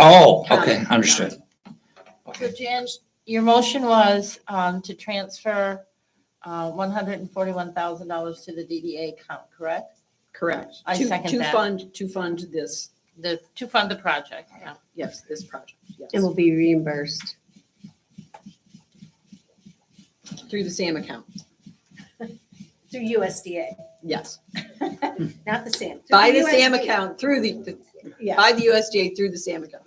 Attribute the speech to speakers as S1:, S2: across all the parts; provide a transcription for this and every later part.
S1: Oh, okay, understood.
S2: So Jan, your motion was um, to transfer uh, $141,000 to the DDA account, correct?
S3: Correct.
S2: I
S3: To-
S2: second
S3: To
S2: that.
S3: fund, to fund this,
S2: The, to fund the project, yeah.
S3: yes, this project,
S4: It
S3: yes,
S4: will be reimbursed.
S3: through the SAM account,
S5: Through USDA,
S3: yes.
S5: not the SAM. through
S3: By the SAM
S5: USDA.
S3: account, through the, the-
S5: Yeah,
S3: by the USDA, through the SAM account.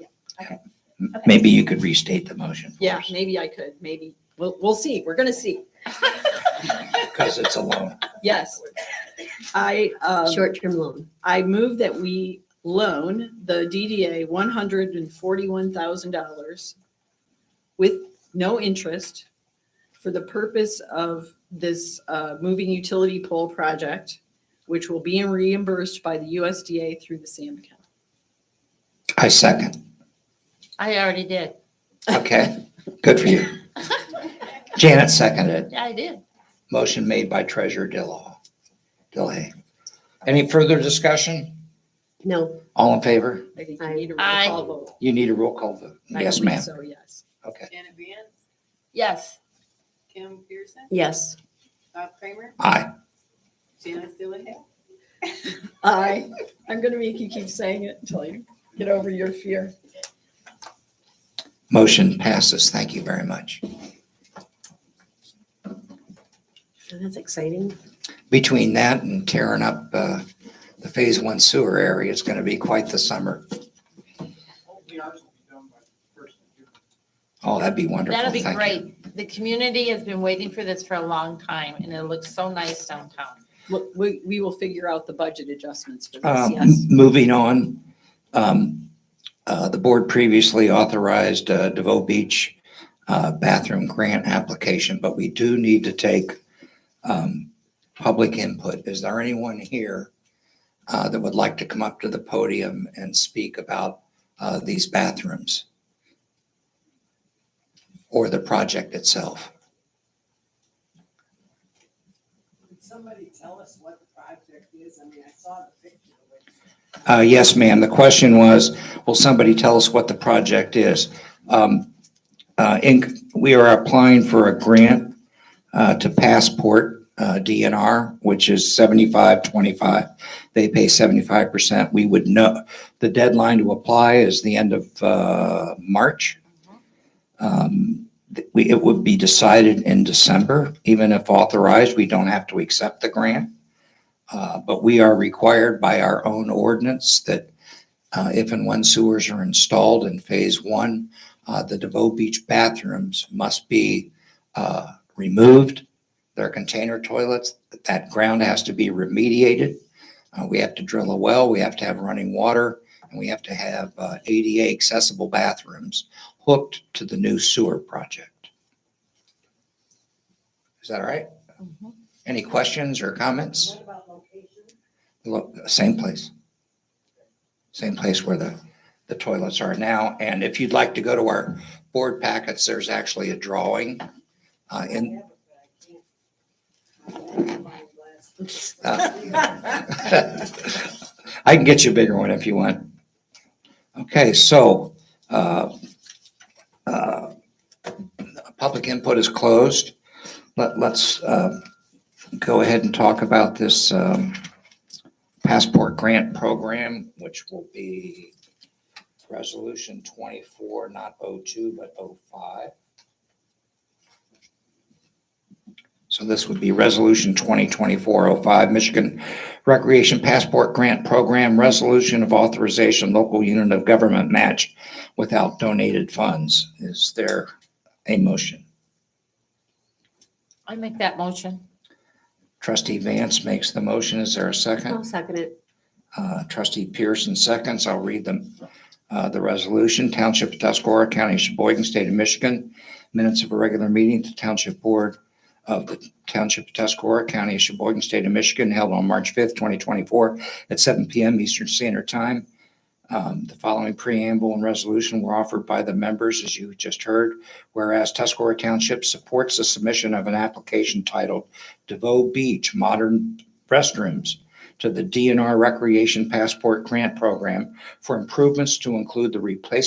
S1: Maybe you could restate the motion. for
S3: Yeah,
S1: us,
S3: maybe I could, maybe. We'll, we'll see. We're going to see.
S1: Because it's a loan.
S3: Yes. I, um,
S4: Short-term loan.
S3: I move that we loan the DDA one hundred and forty-one thousand dollars with no interest for the purpose of this uh, moving utility pole project, which will be reimbursed by the USDA through the SAM account.
S1: I second.
S2: I already did.
S1: Okay, good for you. Janet seconded.
S2: Yeah, I did.
S1: Motion made by Treasurer Dillaw. Dillahay. Any further discussion?
S4: No,
S1: All in favor?
S3: I think
S4: Aye.
S3: you need a roll
S2: Aye.
S3: call vote.
S1: You need a roll call vote.
S3: I
S1: Yes,
S3: believe
S1: ma'am.
S3: So, yes.
S1: Okay.
S6: Janet Vance,
S2: Yes.
S6: Kim Pearson,
S4: yes.
S6: Bob Kramer,
S1: Aye.
S6: Janice Dillahay.
S3: Aye. I'm going to make you keep saying it until you get over your fear.
S1: Motion passes. Thank you very much.
S4: That's exciting.
S1: Between that and tearing up uh, the Phase One sewer area, it's going to be quite the summer.
S7: Hopefully ours will be done by the first of June.
S1: Oh, that'd be wonderful.
S2: That'll be
S1: Thank you.
S2: great. The community has been waiting for this for a long time and it looks so nice downtown.
S3: Look, We, we will figure out the budget adjustments for this,
S1: Um,
S3: yes.
S1: Moving on, um, uh, the board previously authorized uh, DeVoe Beach uh, bathroom grant application, but we do need to take um, public input. Is there anyone here uh, that would like to come up to the podium and speak about uh, these bathrooms? Or the project itself?
S8: Could somebody tell us what the project is? I mean, I saw the picture, but
S1: Uh, Yes, ma'am. The question was, will somebody tell us what the project is? Um, uh, in- We are applying for a grant uh, to Passport uh, DNR, which is 7525. They pay 75%. We would know, the deadline to apply is the end of uh, March. Um, th- we- It would be decided in December, even if authorized, we don't have to accept the grant. Uh, But we are required by our own ordinance that uh, if and when sewers are installed in Phase One, uh, the DeVoe Beach bathrooms must be uh, removed. Their container toilets, that ground has to be remediated. Uh, We have to drill a well, we have to have running water, and we have to have uh, ADA accessible bathrooms hooked to the new sewer project. Is that all right? Any questions or comments?
S8: what about location?
S1: Look, same place. Same place where the, the toilets are now. And if you'd like to go to our board packets, there's actually a drawing. Uh, in, uh, I can get you a bigger one if you want. Okay, so, uh, uh, public input is closed. Let, let's, uh, go ahead and talk about this, um, passport grant program, which will be resolution twenty-four, not oh-two, but oh oh-five. So this would be resolution twenty twenty-four oh five, Michigan Recreation Passport Grant Program, resolution of authorization, local unit of government match without donated funds. Is there a motion?
S2: I make that motion.
S1: Trustee Vance makes the motion. Is there a second?
S4: I'll second it.
S1: Uh, Trustee Pearson seconds. I'll read them. Uh, The resolution, Township of Tuscarora County, of Sheboygan, State of Michigan, minutes of a regular meeting to Township Board of the Township of Tuscarora County, of Sheboygan, State of Michigan, held on March 5th, 2024, at 7 PM Eastern Standard Time. Um, The following preamble and resolution were offered by the members, as you just heard. Whereas Tuscarora Township supports the submission of an application titled DeVoe Beach Modern Restrooms to the DNR Recreation Passport Grant Program for improvements to include the replacement